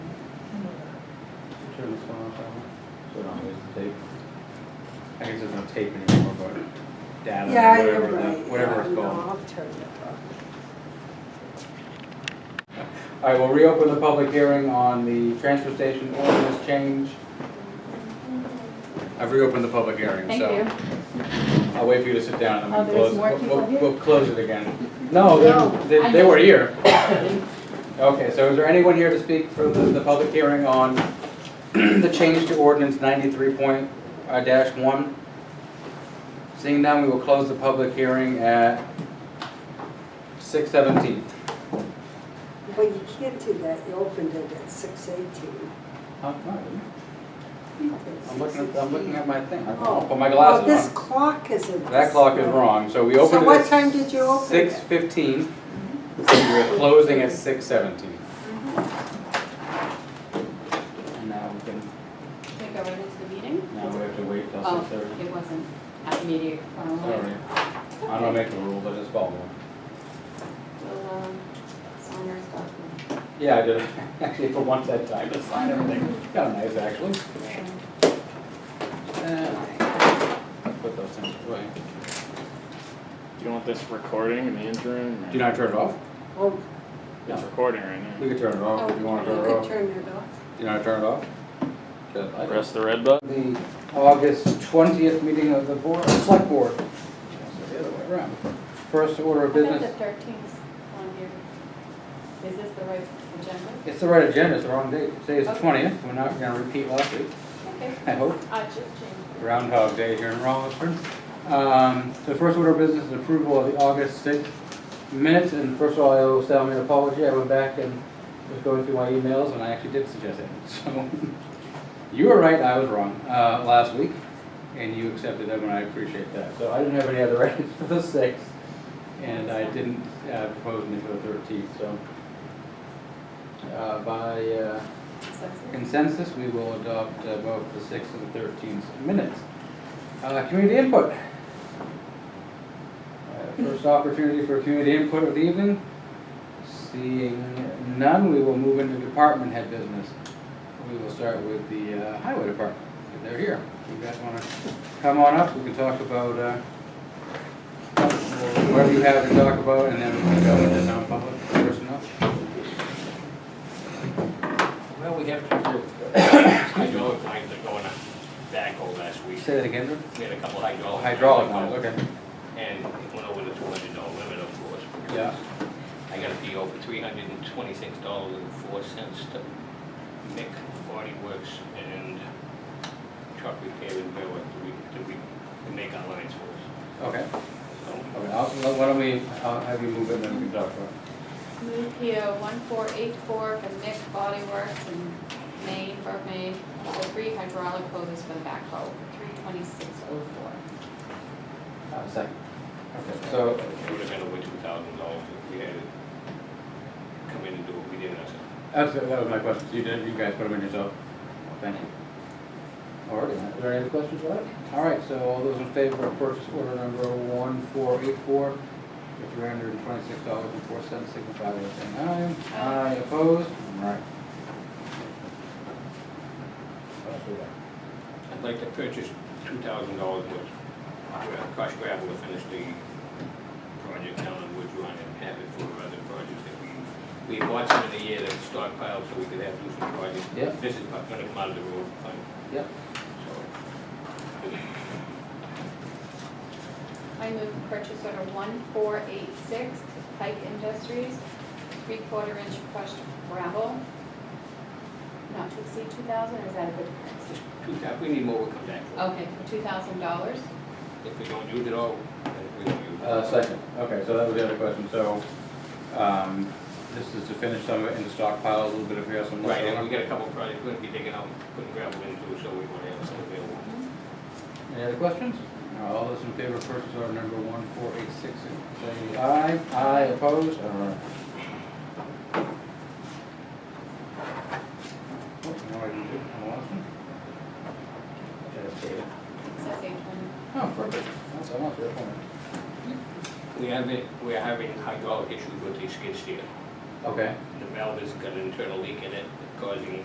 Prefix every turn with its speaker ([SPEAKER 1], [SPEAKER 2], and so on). [SPEAKER 1] sure this one off that one.
[SPEAKER 2] Put on his tape.
[SPEAKER 1] I guess there's no tape anymore, but data,
[SPEAKER 3] Yeah, you're
[SPEAKER 1] whatever, the-
[SPEAKER 3] right.
[SPEAKER 1] whatever it's
[SPEAKER 3] Yeah, no,
[SPEAKER 1] called.
[SPEAKER 3] I'll turn it off.
[SPEAKER 1] All right, we'll reopen the public hearing on the transfer station ordinance change. I've reopened the public hearing,
[SPEAKER 4] Thank
[SPEAKER 1] so
[SPEAKER 4] you.
[SPEAKER 1] I'll wait for you to sit down and
[SPEAKER 4] Oh,
[SPEAKER 1] then we'll
[SPEAKER 4] there's
[SPEAKER 1] close.
[SPEAKER 4] more
[SPEAKER 1] we'll-
[SPEAKER 4] people
[SPEAKER 1] we'll-
[SPEAKER 4] here?
[SPEAKER 1] We'll close it again. No,
[SPEAKER 4] No,
[SPEAKER 1] they,
[SPEAKER 4] I
[SPEAKER 1] they
[SPEAKER 4] know.
[SPEAKER 1] were here. Okay, so is there anyone here to speak for the, the public hearing on the change to ordinance ninety-three point, uh, dash one? Seeing none, we will close the public hearing at six seventeen.
[SPEAKER 3] Well, you can't do that, you opened it at six eighteen.
[SPEAKER 1] I'm looking at, I'm looking at my thing, I'll
[SPEAKER 3] Oh.
[SPEAKER 1] put my
[SPEAKER 3] Well,
[SPEAKER 1] glasses
[SPEAKER 3] this
[SPEAKER 1] on.
[SPEAKER 3] clock isn't.
[SPEAKER 1] That clock is wrong, so we opened it
[SPEAKER 3] So
[SPEAKER 1] at.
[SPEAKER 3] what time did you open it?
[SPEAKER 1] Six fifteen, and we're closing at six seventeen. And now we can,
[SPEAKER 4] Should I go right into the meeting?
[SPEAKER 1] now we have to wait till
[SPEAKER 4] Oh,
[SPEAKER 1] six thirty.
[SPEAKER 4] it wasn't at the meeting. um,
[SPEAKER 1] Sorry, I don't make a rule, but just follow it.
[SPEAKER 4] We'll, um, sign our stuff and-
[SPEAKER 1] Yeah, I did, actually, for once that time, to sign everything, kind of nice, actually. Uh, Put those things away.
[SPEAKER 5] Do you want this recording in the interim?
[SPEAKER 1] Do you not turn it off?
[SPEAKER 3] Oh,
[SPEAKER 5] It's recording right
[SPEAKER 1] We
[SPEAKER 5] now.
[SPEAKER 1] could turn it off if you want to
[SPEAKER 3] you
[SPEAKER 1] turn it
[SPEAKER 3] could
[SPEAKER 1] off.
[SPEAKER 3] turn it off.
[SPEAKER 1] Do you not turn it off? Good, I-
[SPEAKER 5] Press the red button.
[SPEAKER 1] The August twentieth meeting of the board, uh, select board. The other way around. First order
[SPEAKER 4] I
[SPEAKER 1] of
[SPEAKER 4] think
[SPEAKER 1] business,
[SPEAKER 4] the thirteenth on here. Is this the right agenda?
[SPEAKER 1] it's the right agenda, it's the wrong date. Today's the
[SPEAKER 4] Okay.
[SPEAKER 1] twentieth, we're not gonna repeat last week,
[SPEAKER 4] Okay,
[SPEAKER 1] I hope.
[SPEAKER 4] I just changed.
[SPEAKER 1] Groundhog Day here in Rollinsford. Um, the first order of business is approval of the August sixth minutes, and first of all, I will send me an apology, I went back and was going through my emails, and I actually did suggest it, so. You were right, I was wrong, uh, last week, and you accepted them, and I appreciate that, so I didn't have any other items for the sixth, and I didn't, uh, propose any for the thirteenth, so. Uh, by, uh,
[SPEAKER 4] it.
[SPEAKER 1] consensus, we will adopt uh, both the sixth and the thirteenth minutes. Uh, Community input. Uh, First opportunity for community input of the evening. Seeing none, we will move into department head business. We will start with the uh, highway department, if they're here. If you guys want to come on up, we can talk about uh, whatever you have to talk about, and then we can go into non-public personnel.
[SPEAKER 6] Well, we have, I know, I was going on backhoe last week,
[SPEAKER 1] Say that again, Drew?
[SPEAKER 6] we had a couple Oh, hydraulic.
[SPEAKER 1] Hydraulic lines, okay.
[SPEAKER 6] And it went over the two hundred dollar limit, of course. because
[SPEAKER 1] Yeah.
[SPEAKER 6] I got a PO for three hundred and twenty-six dollars and four cents to Mick Body Works and Truck Repair and Railroad to, re- to, re- to make our lines for
[SPEAKER 1] Okay,
[SPEAKER 6] us. So,
[SPEAKER 1] okay, I'll, why don't we, I'll have you move it and then we can talk about it.
[SPEAKER 4] Move PO one four eight four from Nick Body Works in Maine, Burke, Maine, for three hydraulic hoses for the backhoe, three twenty-six oh four.
[SPEAKER 1] Uh, second. Okay, so,
[SPEAKER 6] It would have been over two thousand dollars if we had it come in and do what we did ourselves.
[SPEAKER 1] that's, that was my question, So you did, you guys put them in yourself? Thank you. All right, are there any other questions about it? All right, so all those in favor of purchase order number one four eight four for three hundred and twenty-six dollars and four cents, signify by saying aye. Aye opposed? All right. What else we got?
[SPEAKER 6] I'd like to purchase two thousand dollars worth of crushed gravel to finish the project down on Woods Run and have it for other projects that we, we bought some in the year that was stockpiled so we could have do some projects.
[SPEAKER 1] Yep.
[SPEAKER 6] This is not gonna come out of the road fund,
[SPEAKER 1] Yep,
[SPEAKER 6] so.
[SPEAKER 4] I move purchase order one four eight six to Pike Industries, three-quarter inch crushed gravel, not to exceed two thousand, or is that a good price?
[SPEAKER 6] Just two thou, we need more, we'll come back for.
[SPEAKER 4] Okay, for two thousand dollars.
[SPEAKER 6] If we don't use it all, then we don't use it.
[SPEAKER 1] Uh, second, okay, so that was the other question, so, um, this is to finish some of it in the stockpile, a little bit of here, some.
[SPEAKER 6] Right, and we got a couple of projects we're gonna be digging out, putting gravel into, so we wanna have some available.
[SPEAKER 4] Mm-hmm.
[SPEAKER 1] Any other questions? Now, All those in favor of purchase order number one four eight six, say aye. Aye, opposed? All right. Oh, now I can do it. I lost one. Okay, that's it.
[SPEAKER 4] It says eight twenty.
[SPEAKER 1] Oh, perfect, that's, I lost that one.
[SPEAKER 6] We have it, we're having hydraulic issues with the skid steer.
[SPEAKER 1] Okay.
[SPEAKER 6] The valve has got an internal leak in it causing